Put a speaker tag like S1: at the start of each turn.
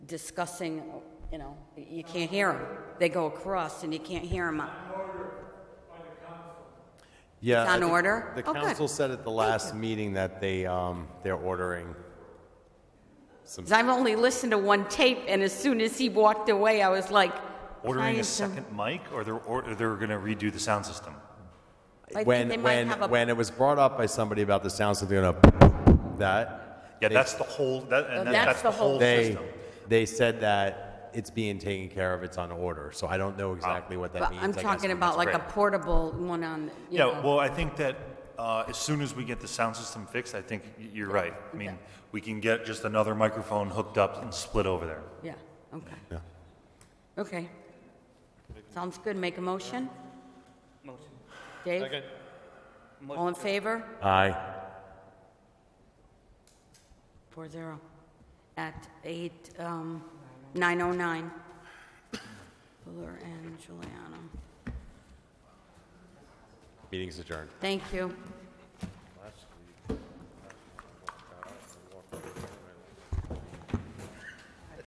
S1: discussing, you know, you can't hear them. They go across and you can't hear them.
S2: Yeah.
S1: It's on
S2: I think
S1: order?
S2: The
S1: Oh, good.
S2: council said at the last meeting that they, um, they're ordering some,
S1: I've only listened to one tape, and as soon as he walked away, I was like,
S3: Ordering
S1: trying
S3: a
S1: to-
S3: second mic, or they're, or they're going to redo the sound system?
S1: I think they
S2: when,
S1: might
S2: when,
S1: have a-
S2: when it was brought up by somebody about the sound, so they're gonna that,
S3: Yeah, that's the whole, that, and that-
S1: that's
S3: that's
S1: the
S3: the
S1: whole
S3: whole
S2: they,
S3: system.
S2: they said that it's being taken care of, it's on order, so I don't know exactly what that
S1: But
S2: means.
S1: Ah.
S2: I
S1: I'm
S2: guess
S1: talking
S2: when
S1: about
S2: it's
S1: like a
S2: written.
S1: portable one on, you
S3: Yeah,
S1: know.
S3: well, I think that uh, as soon as we get the sound system fixed, I think y- you're right. I mean, we can get just another microphone hooked up and split over there.
S1: Yeah, okay. Okay. Sounds good. Make a motion?
S4: Motion.
S1: Dave? All in favor?
S2: Aye,
S1: Four zero. At eight, um, nine oh nine. Fuller and Giuliano.
S2: meeting's adjourned.
S1: Thank you.